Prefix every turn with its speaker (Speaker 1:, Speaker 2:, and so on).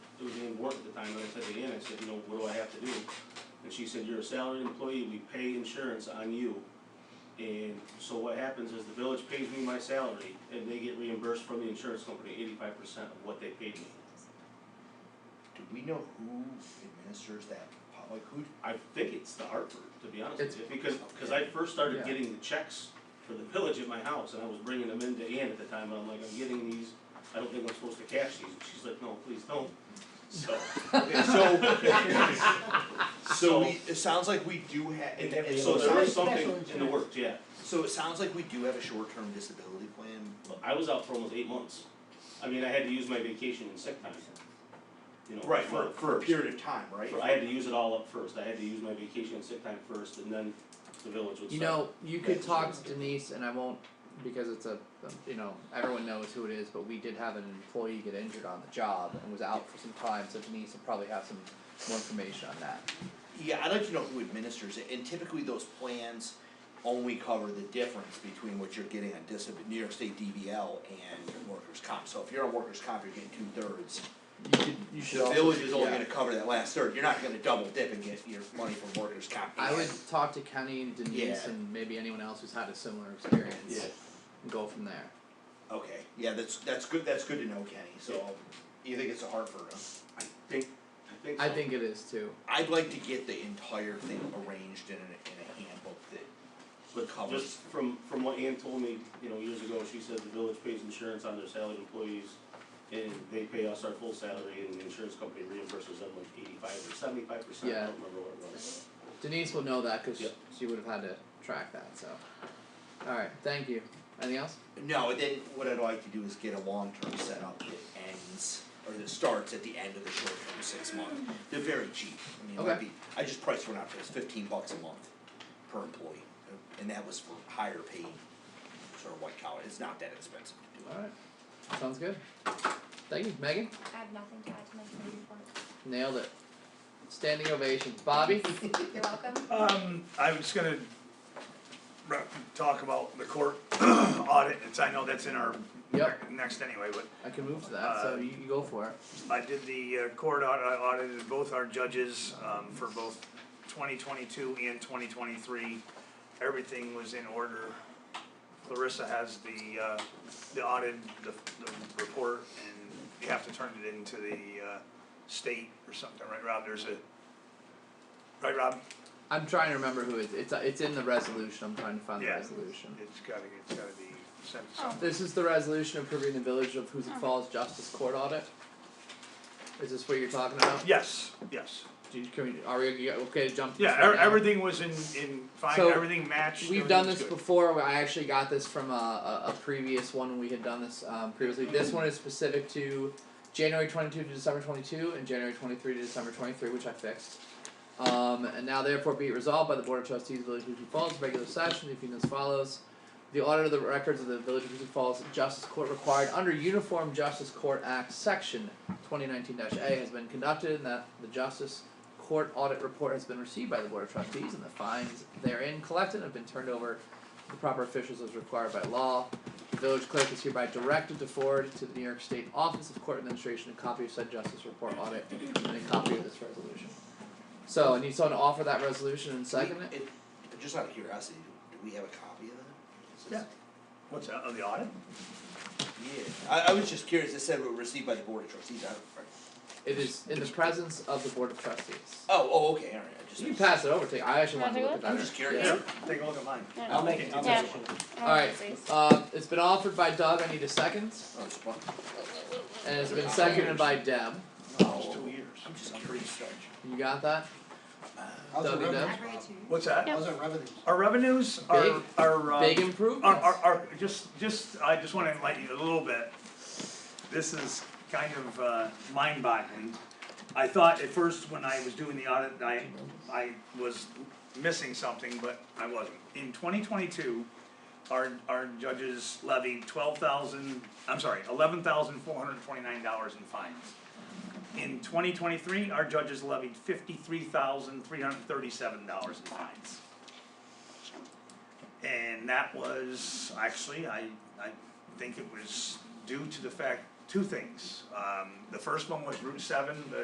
Speaker 1: didn't work at the time, and I said to Ann, I said, you know, what do I have to do? And she said, you're a salaried employee, we pay insurance on you. And so what happens is the village pays me my salary, and they get reimbursed from the insurance company eighty-five percent of what they paid me.
Speaker 2: Do we know who administers that potluck? Who,
Speaker 1: I think it's the Hartford, to be honest
Speaker 3: It's-
Speaker 1: with you, because, because I first started
Speaker 3: Yeah.
Speaker 1: getting the checks for the village at my house, and I was bringing them in to Ann at the time, and I'm like, I'm getting these, I don't think I'm supposed to cash these, and she's like, no, please don't. So,
Speaker 2: okay, so. So we, it sounds like we do have,
Speaker 1: and-
Speaker 2: and
Speaker 1: and
Speaker 2: and
Speaker 1: so
Speaker 2: so it
Speaker 1: there is
Speaker 2: sounds,
Speaker 1: something
Speaker 4: Special
Speaker 1: in the
Speaker 4: insurance.
Speaker 1: works, yeah,
Speaker 2: so it sounds like we do have a short-term disability plan.
Speaker 1: but I was out for almost eight months, I mean, I had to use my vacation and sick time, you know.
Speaker 2: For,
Speaker 1: for-
Speaker 2: for a period of time, right?
Speaker 1: for- I had to use it all up first, I had to use my vacation and sick time first, and then the village would start.
Speaker 3: You know, you could
Speaker 1: Yeah,
Speaker 3: talk
Speaker 1: sure.
Speaker 3: to Denise, and I won't because it's a, a- you know, everyone knows who it is, but we did have an employee get injured on the job and was out for some time, so Denise will probably have some more information on that.
Speaker 2: Yeah, I'd like to know who administers it, and typically those plans only cover the difference between what you're getting on disability, New York State DVL and workers' comp. So if you're on workers' comp, you're getting two-thirds.
Speaker 3: You could, you should
Speaker 2: The
Speaker 3: also.
Speaker 2: village is only
Speaker 3: yeah.
Speaker 2: gonna cover that last third, you're not gonna double dip and get your money from workers' comp.
Speaker 3: I would talk to Kenny and Denise
Speaker 2: Yeah.
Speaker 3: and maybe anyone else who's had a similar experience.
Speaker 1: Yeah.
Speaker 3: And go from there.
Speaker 2: Okay, yeah, that's, that's good, that's good to know, Kenny, so, you think it's a Hartford, huh?
Speaker 1: I think, I think so.
Speaker 3: I think it is too.
Speaker 2: I'd like to get the entire thing arranged in a, in a handbook that,
Speaker 1: But
Speaker 2: Covers.
Speaker 1: just from, from what Ann told me, you know, years ago, she said the village pays insurance on their salaried employees, and they pay us our full salary, and the insurance company reimburses them like eighty-five or seventy-five percent, I
Speaker 3: Yeah.
Speaker 1: don't remember what it was.
Speaker 3: Denise will know that because
Speaker 1: Yep.
Speaker 3: she would have had to track that. So, all right, thank you. Anything else?
Speaker 2: no, then what I'd like to do is get a long-term setup that ends, or that starts at the end of the short-term six month. They're very cheap, I mean, it might
Speaker 3: Okay.
Speaker 2: be, I just priced one out for this, fifteen bucks a month per employee, and that was for higher paid, sort of white collar, it's not that expensive to do it.
Speaker 3: All right, sounds good. Thank you, Megan.
Speaker 5: I have nothing to add to my committee
Speaker 3: Nailed it. Standing ovation, Bobby.
Speaker 5: report. You're welcome.
Speaker 6: Um, I was gonna re- talk about the court audit, it's, I know that's in our
Speaker 3: Yep.
Speaker 6: ne- next anyway, but
Speaker 3: I can move to that, so
Speaker 6: Uh,
Speaker 3: you, you go for it.
Speaker 6: I did the uh, court audit, I audited both our judges, um, for both twenty twenty-two and twenty twenty-three. Everything was in order. Clarissa has the, uh, the audit, the, the report, and you have to turn it into the, uh, state or something, right, Rob? There's a, right, Rob?
Speaker 3: I'm trying to remember who it's it's it's in the resolution. I'm trying to find the
Speaker 6: Yeah.
Speaker 3: resolution.
Speaker 6: It's gotta, it's gotta be sent to
Speaker 5: Oh.
Speaker 3: This is the resolution approving the village of Hoosick Falls Justice Court audit. Is this what you're talking about?
Speaker 6: Yes, yes.
Speaker 3: Do you, can we, are we okay to jump? to
Speaker 6: Yeah,
Speaker 3: this right
Speaker 6: e-
Speaker 3: now?
Speaker 6: everything was in, in fine,
Speaker 3: So,
Speaker 6: everything matched.
Speaker 3: We've done this
Speaker 6: everything was
Speaker 3: before. I actually got this from a, a, a previous one. We had done this um, previously. This one is specific to January 22 to December 22 and January 23 to December 23, which I fixed. Um, and now, therefore, be it resolved by the Board of Trustees of the Village of Hoosick Falls, regular session, convened as follows. The audit of the records of the Village of Hoosick Falls Justice Court required under Uniform Justice Court Act, Section 2019-A has been conducted and that the Justice Court audit report has been received by the Board of Trustees and the fines therein collected have been turned over to the proper officials as required by law. The village clerk is hereby directed to forward to the New York State Office of Court Administration a copy of said justice report audit and a copy of this resolution. So I need someone to offer that resolution and second it.
Speaker 2: It- Just out of curiosity, do do we have a copy of that? Is this-
Speaker 6: Yeah. good. What's that, oh, the audit?
Speaker 2: Yeah, I, I was just curious, it said it was received by the board of trustees, I don't,
Speaker 3: It is in the presence of the Board of Trustees.
Speaker 2: oh, oh, okay, alright, I just.
Speaker 3: You can pass it over to I actually want to look at that.
Speaker 2: I'm just curious.
Speaker 3: Yeah.
Speaker 6: Take a look at mine.
Speaker 2: I'll make it, I'll
Speaker 5: Yeah.
Speaker 2: make it.
Speaker 3: Alright, uh, it's been offered by Doug, I need a second,
Speaker 2: Oh, it's fun.
Speaker 3: and it's been seconded by Deb.
Speaker 6: It's two
Speaker 2: Oh,
Speaker 6: years.
Speaker 2: I'm just curious.
Speaker 3: You got that?
Speaker 7: How's our
Speaker 3: That'd be
Speaker 7: revenues,
Speaker 3: nice.
Speaker 7: Rob?
Speaker 6: What's that?
Speaker 7: How's our revenues?
Speaker 6: Our revenues are,
Speaker 3: Big-
Speaker 6: are, uh,
Speaker 3: Big
Speaker 6: are,
Speaker 3: improvements.
Speaker 6: are, are, just, just, I just wanna enlighten you a little bit. This is kind of, uh, mind boggling. I thought at first when I was doing the audit, I, I was missing something, but I wasn't. In twenty twenty-two, our, our judges levied twelve thousand, I'm sorry, eleven thousand four hundred twenty-nine dollars in fines. In twenty twenty-three, our judges levied fifty-three thousand three hundred thirty-seven dollars in fines. And that was, actually, I, I think it was due to the fact, two things. Um, the first one was Route seven, the